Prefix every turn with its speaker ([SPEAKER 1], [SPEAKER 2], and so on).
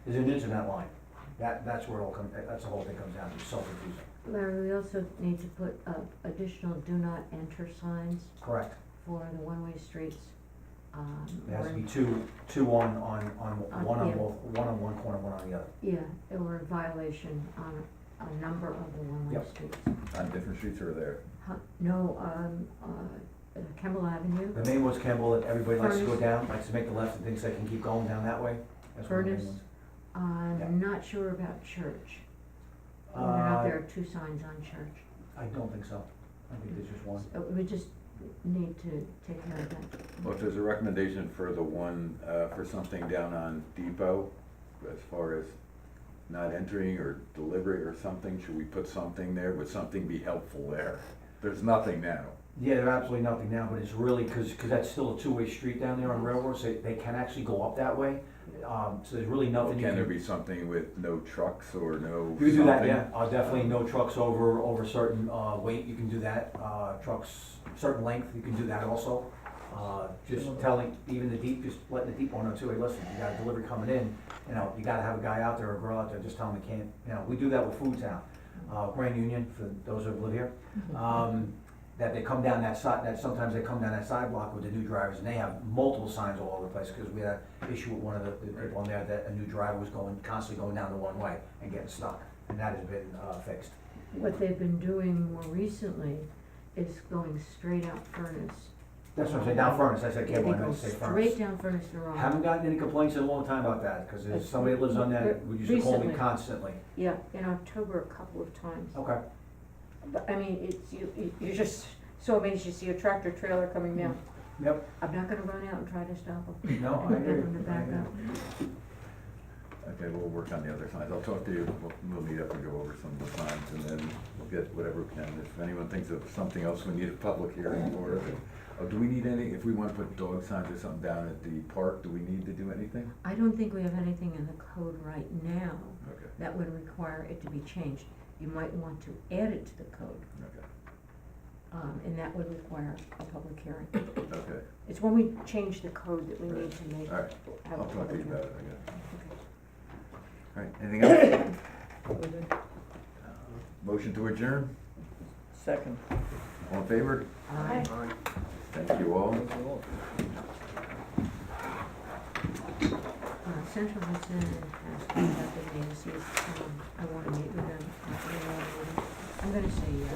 [SPEAKER 1] is an internet line. That, that's where it all comes, that's the whole thing comes down to, so confusing.
[SPEAKER 2] Larry, we also need to put up additional do not enter signs
[SPEAKER 1] Correct.
[SPEAKER 2] for the one-way streets. um,
[SPEAKER 1] There has to
[SPEAKER 2] or-
[SPEAKER 1] be two, two on, on, on,
[SPEAKER 2] On
[SPEAKER 1] one on
[SPEAKER 2] here.
[SPEAKER 1] both, one on one corner, one on the other.
[SPEAKER 2] Yeah, or a violation on a number of the one-way
[SPEAKER 1] Yep.
[SPEAKER 2] streets.
[SPEAKER 3] on different streets or there?
[SPEAKER 2] Huh, No, um, uh, uh, Campbell Avenue,
[SPEAKER 1] The main one's Campbell, that everybody likes to go
[SPEAKER 2] Furnace.
[SPEAKER 1] down, likes to make the left and thinks they can keep going down that way. That's one of the main
[SPEAKER 2] Furnace.
[SPEAKER 1] ones. Yeah.
[SPEAKER 2] I'm not sure about church. Whether or
[SPEAKER 1] Uh,
[SPEAKER 2] not there are two signs on church.
[SPEAKER 1] I don't think so. I think there's just one.
[SPEAKER 2] So We just need to take care of that.
[SPEAKER 3] Well, if there's a recommendation for the one, uh, for something down on Depot, as far as not entering or delivery or something, should we put something there? Would something be helpful there? There's nothing now.
[SPEAKER 1] Yeah, there's absolutely nothing now, but it's really, cause, 'cause that's still a two-way street down there on Railroad, so they can actually go up that way. Um, so there's really nothing you
[SPEAKER 3] Can
[SPEAKER 1] can.
[SPEAKER 3] there be something with no trucks or no
[SPEAKER 1] You can do that,
[SPEAKER 3] something?
[SPEAKER 1] yeah, uh, definitely no trucks over, over certain, uh, weight, you can do that, uh, trucks, certain length, you can do that also. Uh, just telling, even the deep, just letting the deep one know too, hey, listen, you got a delivery coming in, you know, you gotta have a guy out there or a girl out there, just tell them they can't, you know, we do that with Food Town, uh, Grand Union, for those who live here. Um, that they come down that side, that sometimes they come down that sidewalk with the new drivers, and they have multiple signs all over the place, cause we had an issue with one of the, the people on there, that a new driver was going, constantly going down the one way and getting stuck, and that has been, uh, fixed.
[SPEAKER 2] What they've been doing more recently is going straight out Furnace.
[SPEAKER 1] That's what I'm saying, down Furnace, I said,
[SPEAKER 2] They
[SPEAKER 1] can't believe
[SPEAKER 2] go
[SPEAKER 1] I say
[SPEAKER 2] Straight
[SPEAKER 1] Furnace.
[SPEAKER 2] down Furnace to Rock.
[SPEAKER 1] Haven't gotten any complaints in a long time about that, cause there's somebody that lives on that, we used to call me
[SPEAKER 2] Recently.
[SPEAKER 1] constantly,
[SPEAKER 2] Yeah, in October a couple of times.
[SPEAKER 1] okay.
[SPEAKER 2] But, I mean, it's, you, you- you're just so amazed you see a tractor trailer coming down.
[SPEAKER 3] Mm-hmm.
[SPEAKER 1] Yep,
[SPEAKER 2] I'm not gonna run out and try to stop them.
[SPEAKER 1] no, I hear
[SPEAKER 2] Get them
[SPEAKER 1] you,
[SPEAKER 2] to
[SPEAKER 1] I
[SPEAKER 2] back
[SPEAKER 1] hear
[SPEAKER 2] up.
[SPEAKER 1] you.
[SPEAKER 3] Okay, we'll work on the other signs. I'll talk to you, we'll, we'll meet up and go over some of the signs and then we'll get whatever we can. If anyone thinks of something else, we need a public hearing or, oh, do we need any, if we wanna put dog signs or something down at the park, do we need to do anything?
[SPEAKER 2] I don't think we have anything in the code right now
[SPEAKER 3] Okay,
[SPEAKER 2] that would require it to be changed. You might want to add it to the code,
[SPEAKER 3] okay,
[SPEAKER 2] um, and that would require a public hearing.
[SPEAKER 3] okay,
[SPEAKER 2] It's when we change the code that we need to make.
[SPEAKER 3] all right.
[SPEAKER 2] have a
[SPEAKER 3] I'll talk to you
[SPEAKER 2] public
[SPEAKER 3] about
[SPEAKER 2] hearing.
[SPEAKER 3] it, I guess. All right, anything else? Motion to adjourn?
[SPEAKER 4] Second.
[SPEAKER 3] All in favor?
[SPEAKER 2] Aye.
[SPEAKER 3] Thank you all.
[SPEAKER 2] Uh, Central Hudson has contacted me and says, um, I wanna meet with them. after the meeting. Uh, I'm gonna say yes.